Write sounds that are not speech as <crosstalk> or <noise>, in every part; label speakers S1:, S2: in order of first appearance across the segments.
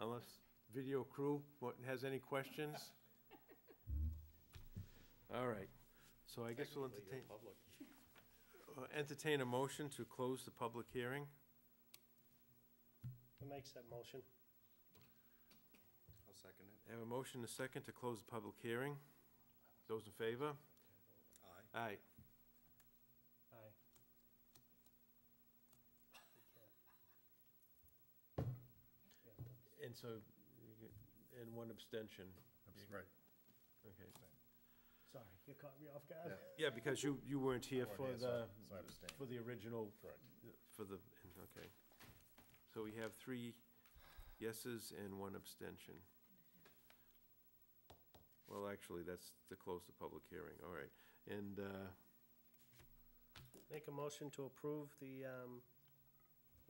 S1: unless video crew what- has any questions? All right, so I guess we'll entertain, uh, entertain a motion to close the public hearing.
S2: Who makes that motion?
S3: I'll second it.
S1: I Have a motion, and a second, to close the public hearing. Those in favor?
S3: Aye.
S1: Aye.
S2: Aye.
S1: And so, you get- and one abstention.
S3: Right.
S1: Okay.
S2: Sorry, you caught me off guard.
S1: Yeah, because you, you weren't here
S3: I wasn't
S1: for
S3: here, so-
S1: the,
S3: so I abstained.
S1: for the original.
S3: Correct.
S1: For the, okay. So we have three yeses and one abstention. Well, actually, that's to close the public hearing, all right. And, uh,
S2: Make a motion to approve the um,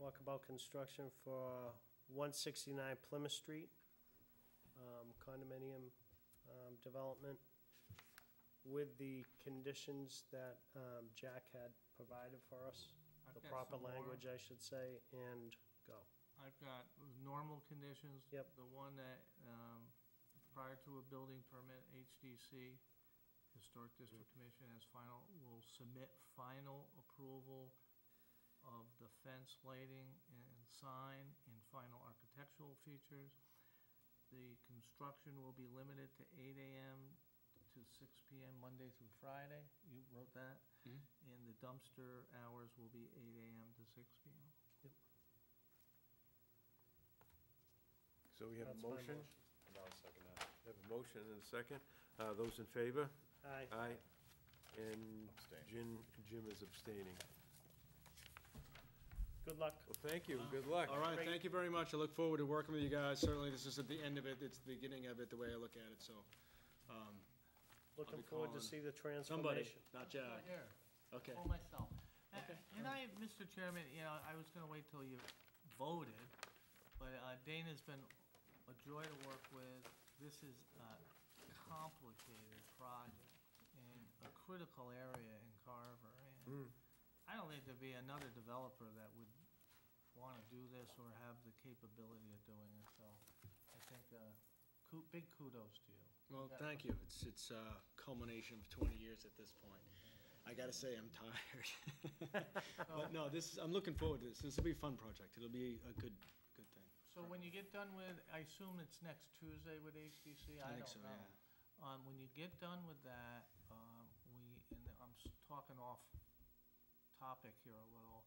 S2: walkabout construction for 169 Plymouth Street um, condominium um, development with the conditions that um, Jack had provided for us,
S4: I've
S2: the
S4: got
S2: proper
S4: some more.
S2: language, I should say, and go.
S4: I've got normal conditions.
S2: Yep.
S4: The one that, um, prior to a building permit, HDC, Historic
S2: Mm.
S4: District Commission as final, will submit final approval of the fence lighting and sign and final architectural features. The construction will be limited to eight AM to six PM, Monday through Friday. You wrote that?
S2: Mm-hmm.
S4: And the dumpster hours will be eight AM to six PM.
S1: so we have
S2: That's
S1: a
S2: my
S1: motion?
S3: And I'll second that.
S1: We Have a motion and a second. Uh, Those in favor?
S2: Aye.
S1: Aye. And
S3: Abstain.
S1: Jim, Jim is abstaining.
S2: Good luck.
S1: Well, thank you, good luck.
S5: All right, thank you very much. I look forward to working with you guys. Certainly, this isn't the end of it, it's the beginning of it, the way I look at it, so. um,
S2: Looking forward to
S5: calling
S2: see the
S5: Somebody,
S2: transformation.
S5: not Jack.
S4: Here.
S5: Okay.
S4: Or myself. Uh, And I, Mr. Chairman, you know, I was gonna wait till you voted, but uh, Dana's been a joy to work with. This is a complicated project in a critical area in Carver.
S1: Mm,
S4: And I don't think there'd be another developer that would wanna do this or have the capability of doing it, so I think, uh, ku- big kudos to you.
S5: Well, thank you. It's, it's a culmination of 20 years at this point. I gotta say, I'm <laughs> tired. But no, this, is I'm looking forward to this. This will be a fun project. It'll be a good, good thing.
S4: So when you get done with, I assume it's next Tuesday with HDC,
S5: I
S4: I
S5: think so,
S4: don't know. Um, when you get done with that, um, we, and I'm s- talking off topic here a little,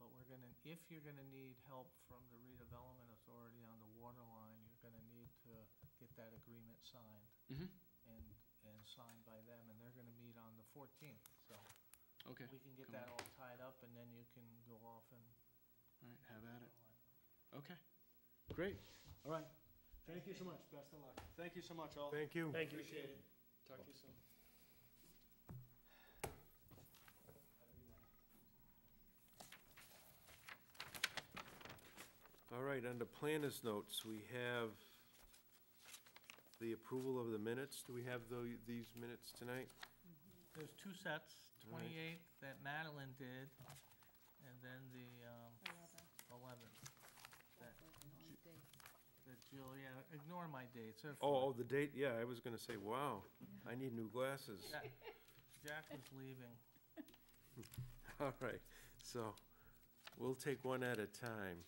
S4: but we're gonna, if you're gonna need help from the redevelopment authority on the water line, you're gonna need to get that agreement signed
S5: Mhm.
S4: and, and signed by them, and they're gonna meet on the fourteenth, so
S5: Okay,
S4: we can get
S5: come
S4: that
S5: on.
S4: all tied up, and then you can go off and.
S5: all right, have at it. Okay, great. All right. Thank you so much. Best of luck. Thank you so much, all.
S1: Thank you.
S2: Thank you.
S5: Appreciate it. Talk to you soon.
S1: All right, under planners notes, we have the approval of the minutes. Do we have tho- these minutes tonight?
S4: There's two sets,
S1: All right.
S4: twenty-eight that Madeline did, and then the, um, eleven that Jill, yeah, ignore my dates, they're fine.
S1: Oh, oh, the date, yeah, I was gonna say, wow, I need new glasses.
S4: Jack- Jack was leaving.
S1: <laughs> All right, so we'll take one at a time.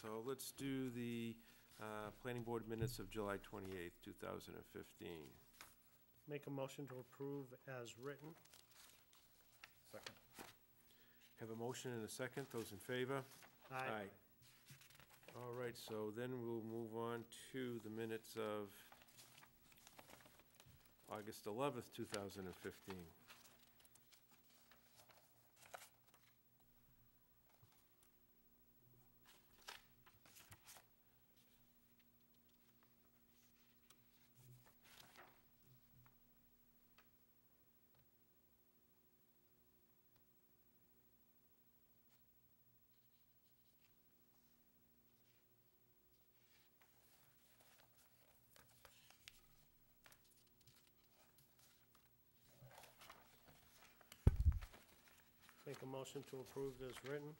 S1: So let's do the uh, planning board minutes of July 28th, 2015.
S2: Make a motion to approve as written.
S3: Second.
S1: Have a motion and a second. Those in favor? All right, so then we'll move on to the minutes of August 11th, 2015.
S2: Make a motion to approve as written.